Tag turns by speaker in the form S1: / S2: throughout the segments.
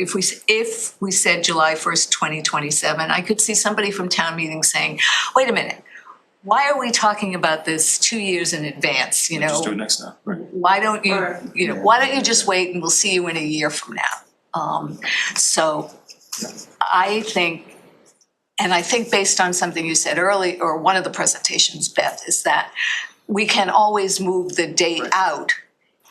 S1: If we, s- if we said July first, twenty twenty-seven, I could see somebody from town meeting saying, wait a minute, why are we talking about this two years in advance, you know?
S2: Just do it next time, right?
S1: why don't you,
S3: Or-
S1: you know, why don't you just wait and we'll see you in a year from now? Um, so I think, and I think based on something you said early, or one of the presentations, Beth, is that we can always move the date out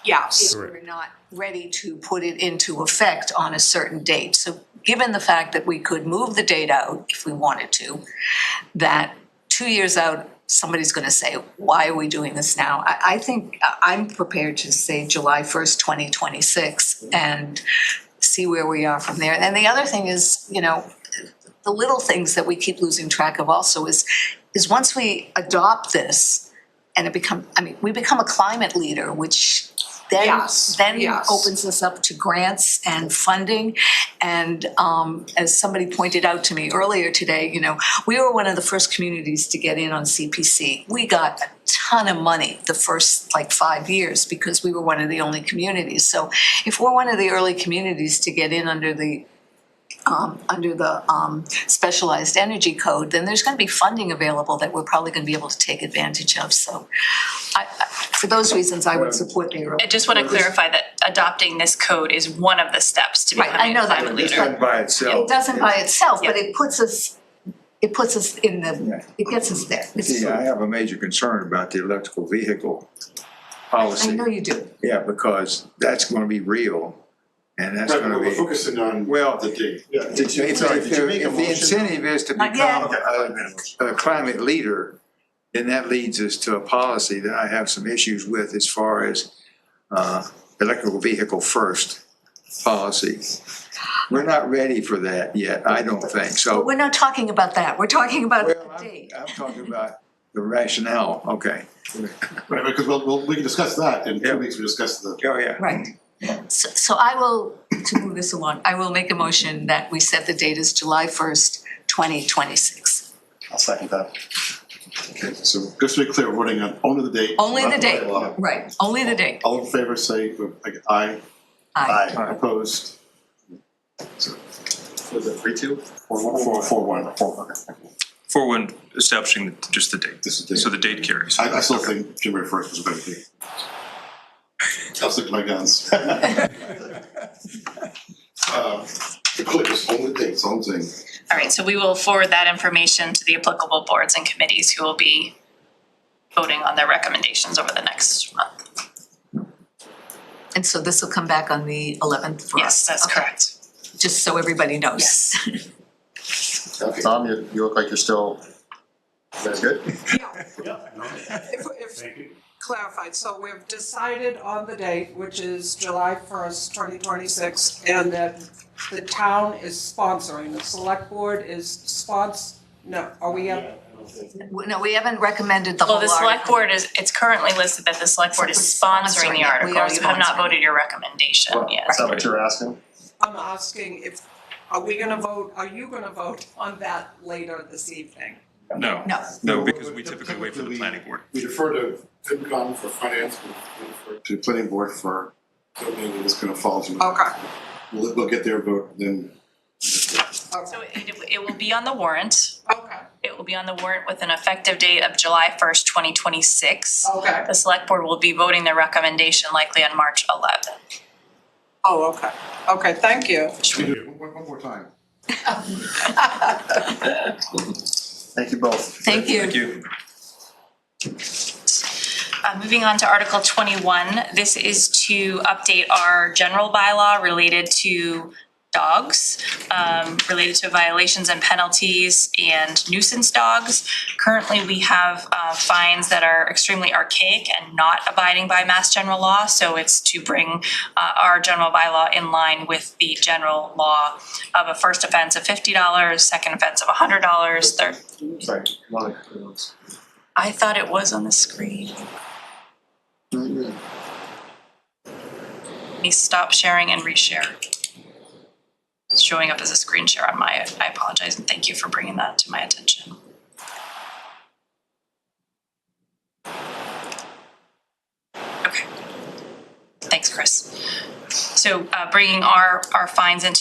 S3: Yes.
S1: if we're not ready to put it into effect on a certain date. So given the fact that we could move the date out if we wanted to, that two years out, somebody's gonna say, why are we doing this now? I, I think, I- I'm prepared to say July first, twenty twenty-six, and see where we are from there. And the other thing is, you know, the little things that we keep losing track of also is, is once we adopt this, and it become, I mean, we become a climate leader, which then,
S3: Yes,
S1: then
S3: yes.
S1: opens us up to grants and funding. And um, as somebody pointed out to me earlier today, you know, we were one of the first communities to get in on CPC. We got a ton of money the first like five years because we were one of the only communities. So if we're one of the early communities to get in under the um, under the um, specialized energy code, then there's going to be funding available that we're probably going to be able to take advantage of. So, I, I, for those reasons, I would support the early.
S4: I just want to clarify that adopting this code is one of the steps to
S1: Right, I
S4: becoming a
S1: know that.
S4: climate
S1: Just
S4: leader.
S1: like-
S2: by itself.
S1: It doesn't by itself, but it puts us, it puts us in the,
S5: Yeah.
S1: it gets us there. It's-
S5: See, I have a major concern about the electrical vehicle
S1: I
S5: policy.
S1: know you do.
S5: Yeah, because that's gonna be real and that's
S6: Right, but
S5: gonna
S6: we're
S5: be.
S6: focusing on
S5: Well,
S6: the date.
S5: If if the- if the incentive is to
S1: Not yet.
S5: become a, a climate leader, then that leads us to a policy that I have some issues with as far as, uh, electrical vehicle first policy. We're not ready for that yet, I don't think, so.
S1: We're not talking about that. We're talking about
S5: Well,
S1: the
S5: I'm,
S1: date.
S5: I'm talking about the rationale, okay.
S6: Right, because we'll, we'll, we can discuss that in
S5: Yeah.
S6: two weeks, we discuss the.
S5: Oh, yeah.
S1: Right. So, so I will, to move this along, I will make a motion that we set the date as July first, twenty twenty-six.
S6: I'll second that. Okay, so just to be clear, we're voting on only the date.
S1: Only
S6: not
S1: the date,
S6: bylaw.
S1: right, only the date.
S6: All in favor, say like, aye.
S1: Aye.
S6: Opposed? Was it three, two? Four, one, four, four, one, four, okay. thank you.
S2: For when establishing just the date,
S6: This is the date.
S2: so the date carries.
S6: I, I still think January first was a better date. I'll stick to my guns. Uh, The clip is only the date, it's only the thing.
S4: All right, so we will forward that information to the applicable boards and committees who will be voting on their recommendations over the next month.
S1: And so this will come back on the eleventh for us.
S4: Yes, that's
S1: Okay.
S4: correct.
S1: Just so everybody knows.
S4: Yes.
S7: Tom, you, you look like you're still, that's good?
S3: If, if clarified, so we've decided on the date, which is July first, twenty twenty-six, and that the town is sponsoring, the select board is spons, no, are we at?
S1: No, we haven't recommended the whole
S4: Well, the
S1: article.
S4: select board is, it's currently listed that the select board is sponsoring
S1: Sponsoring it.
S4: the
S1: We
S4: article,
S1: are
S4: you have not
S1: sponsoring.
S4: voted your recommendation yet.
S7: Is that what you're asking?
S3: I'm asking if, are we gonna vote, are you gonna vote on that later this evening?
S2: No,
S1: No.
S2: no, because we typically wait for the planning board.
S6: We defer to FinCom for finance, we defer to planning board for, building, and it's gonna fall to.
S3: Okay,
S6: We'll, we'll get their vote, then.
S4: So it, it will be on the warrant,
S3: okay,
S4: it will be on the warrant with an effective date of July first, twenty twenty-six.
S3: okay,
S4: The select board will be voting their recommendation likely on March eleventh.
S3: oh, okay, okay, thank you.
S6: One, one more time.
S7: Thank you both.
S1: Thank you.
S2: Thank you.
S4: Uh, moving on to Article twenty-one, this is to update our general bylaw related to dogs, um, related to violations and penalties and nuisance dogs. Currently, we have, uh, fines that are extremely archaic and not abiding by mass general law, so it's to bring, uh, our general bylaw in line with the general law of a first offense of fifty dollars, second offense of hundred dollars, third,
S7: Sorry, Lonnie.
S4: I thought it was on the screen. Let me stop sharing and reshare. It's showing up as a screen share on my, I apologize and thank you for bringing that to my attention. Okay. Thanks, Chris. So uh, bringing our, our fines into